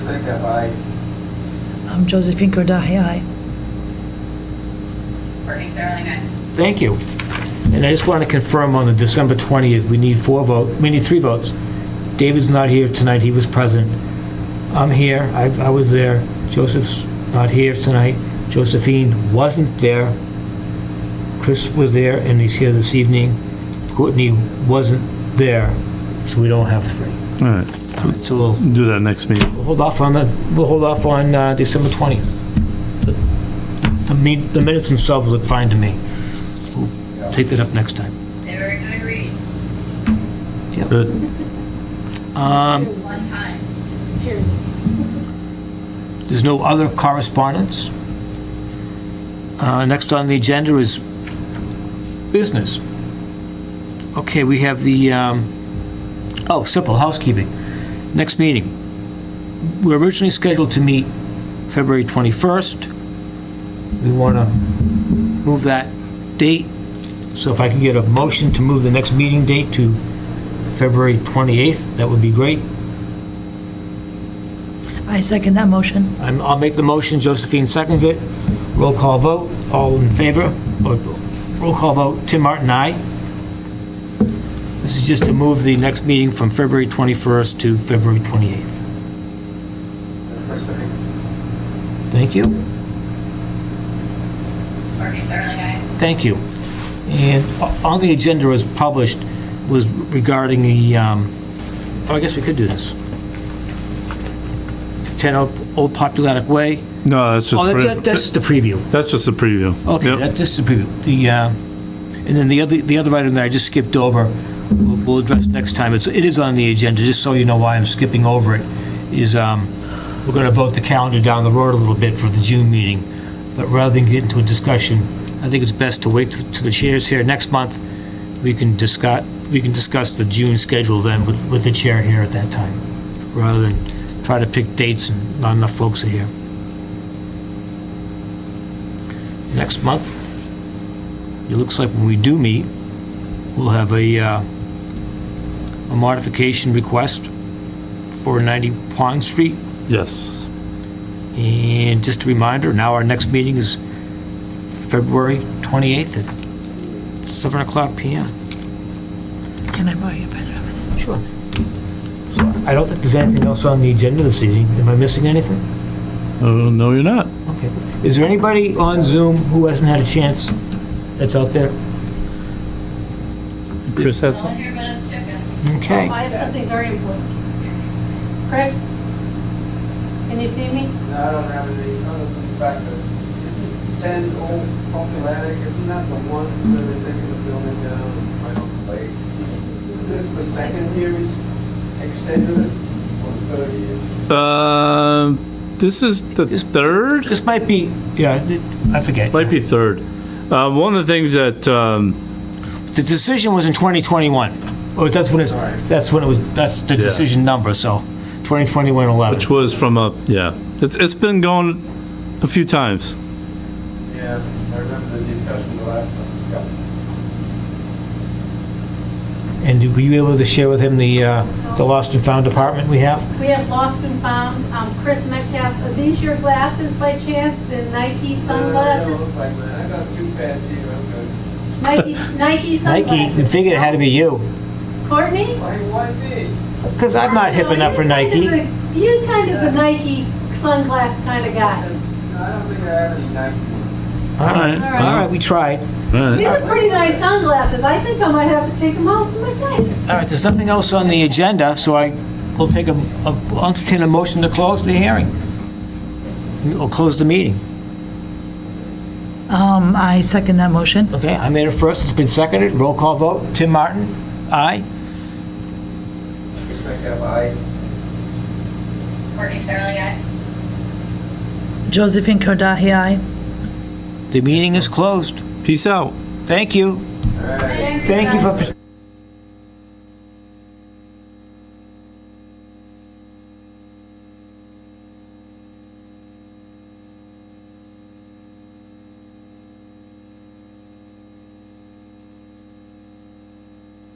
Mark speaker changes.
Speaker 1: Second by
Speaker 2: I'm Um, Josephine Kordahay, aye.
Speaker 3: Courtney Sterling, aye.
Speaker 4: Thank you. And I just want to confirm on the December 20th, we need four vote, we need three votes. David's not here tonight, he was present. I'm here, I I was there. Joseph's not here tonight. Josephine wasn't there. Chris was there, and he's here this evening. Courtney wasn't there, so we don't have three.
Speaker 5: All right,
Speaker 4: So- So we'll
Speaker 5: do that next meeting.
Speaker 4: we'll hold off on the, we'll hold off on uh, December 20th. The min- the minutes themselves look fine to me. We'll Take that up next time.
Speaker 3: They were a good read.
Speaker 5: Good.
Speaker 3: One time.
Speaker 4: There's no other correspondence. Uh, Next on the agenda is business. Okay, we have the, um, oh, simple housekeeping. Next meeting. We're originally scheduled to meet February 21st. We want to move that date, so if I can get a motion to move the next meeting date to February 28th, that would be great.
Speaker 2: I second that motion.
Speaker 4: I'm- I'll make the motion, Josephine seconds it. Roll call vote, all in favor? Or, Roll call vote, Tim Martin, aye. This is just to move the next meeting from February 21st to February 28th.
Speaker 1: Mr.
Speaker 4: Thank you.
Speaker 3: Courtney Sterling, aye.
Speaker 4: Thank you. And o- on the agenda as published was regarding the, um, oh, I guess we could do this. 10 Old Old Populatic Way.
Speaker 5: No, that's
Speaker 4: Oh, that's-
Speaker 5: just,
Speaker 4: that's the preview.
Speaker 5: that's just a preview.
Speaker 4: Okay,
Speaker 5: Yep.
Speaker 4: that's just a preview. The, uh, and then the other, the other item that I just skipped over, we'll we'll address next time. It's, it is on the agenda, just so you know why I'm skipping over it, is um, we're going to vote the calendar down the road a little bit for the June meeting. But rather than get into a discussion, I think it's best to wait t- till the chair's here. Next month, we can discuss, we can discuss the June schedule then with, with the chair here at that time, rather than try to pick dates and not enough folks are here. next month. It looks like when we do meet, we'll have a, uh, a modification request for 90 Pond Street.
Speaker 5: Yes.
Speaker 4: And just a reminder, now our next meeting is February 28th at 7 o'clock PM.
Speaker 2: Can I borrow your pen?
Speaker 4: Sure. I don't think there's anything else on the agenda this evening. Am I missing anything?
Speaker 5: Oh, no, you're not.
Speaker 4: Okay. Is there anybody on Zoom who hasn't had a chance that's out there?
Speaker 5: Chris has
Speaker 3: No one here but us chickens.
Speaker 4: Okay.
Speaker 6: Oh, I have something very important. Chris, can you see me?
Speaker 1: No, I don't have any other than the fact that isn't ten old populatic, isn't that the one where they're taking the building down and right off the lake? Isn't this the second year he's extended it, or third year?
Speaker 5: Uh, this is the third?
Speaker 4: This might be, yeah, it- I forget.
Speaker 5: Might be third. Uh, one of the things that, um,
Speaker 4: The decision was in 2021. Oh, that's when it's, that's when it was, that's the
Speaker 5: Yeah.
Speaker 4: decision number, so 2021, 11.
Speaker 5: which was from a, yeah, it's, it's been going a few times.
Speaker 1: Yeah, I remember the discussion the last time. Yeah.
Speaker 4: And were you able to share with him the, uh, the lost and found department we have?
Speaker 6: We have lost and found. Um, Chris Metcalf, are these your glasses by chance? The Nike
Speaker 1: I don't
Speaker 4: Uh.
Speaker 6: sunglasses?
Speaker 1: look like that, I got two pairs here, I'm good.
Speaker 6: Nike, Nike
Speaker 4: Nike,
Speaker 6: sunglasses?
Speaker 4: we figured it had to be you,
Speaker 6: Courtney?
Speaker 1: Why, why me?
Speaker 4: because I'm not hip
Speaker 6: No,
Speaker 4: enough for
Speaker 6: you're kind of
Speaker 4: Nike.
Speaker 6: the- You're kind of the Nike sunglass kind of guy.
Speaker 1: No, I don't think I have any Nike ones.
Speaker 4: All right,
Speaker 6: All
Speaker 4: all right, we tried.
Speaker 5: All right.
Speaker 6: These are pretty nice sunglasses. I think I might have to take them off for myself.
Speaker 4: All right, there's nothing else on the agenda, so I will take a, a- I'll entertain a motion to close the hearing. We'll close the meeting.
Speaker 2: Um, I second that motion.
Speaker 4: Okay, I made it first, it's been seconded, roll call vote. Tim Martin, aye?
Speaker 1: Just like have I,
Speaker 3: Courtney Sterling, aye.
Speaker 2: Josephine Kordahay, aye.
Speaker 4: The meeting is closed.
Speaker 5: Peace out.
Speaker 4: Thank you.
Speaker 1: all right.
Speaker 4: Thank you for participating.